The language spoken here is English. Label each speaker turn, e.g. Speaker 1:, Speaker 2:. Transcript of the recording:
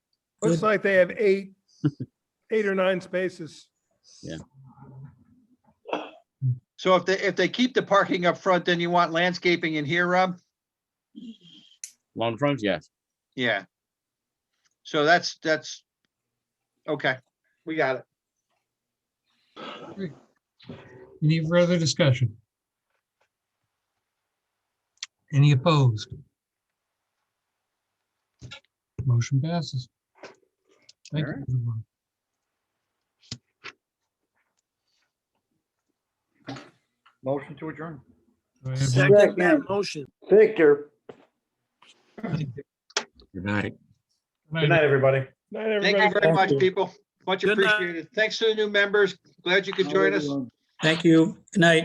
Speaker 1: Looks like they have eight, eight or nine spaces.
Speaker 2: So if they, if they keep the parking up front, then you want landscaping in here, Rob?
Speaker 3: Long front, yes.
Speaker 2: Yeah. So that's, that's, okay, we got it.
Speaker 4: Any further discussion? Any opposed? Motion passes. Thank you.
Speaker 2: Alright.
Speaker 4: everyone.
Speaker 2: Motion to adjourn.
Speaker 4: Do I have a-
Speaker 5: Second that
Speaker 1: motion.
Speaker 5: Victor.
Speaker 3: Good night.
Speaker 5: Good night, everybody.
Speaker 1: Night,
Speaker 2: Thank
Speaker 1: everybody.
Speaker 2: you very much, people. Much
Speaker 1: Good night.
Speaker 2: appreciated. Thanks to the new members. Glad you could join us.
Speaker 6: Thank you. Good night.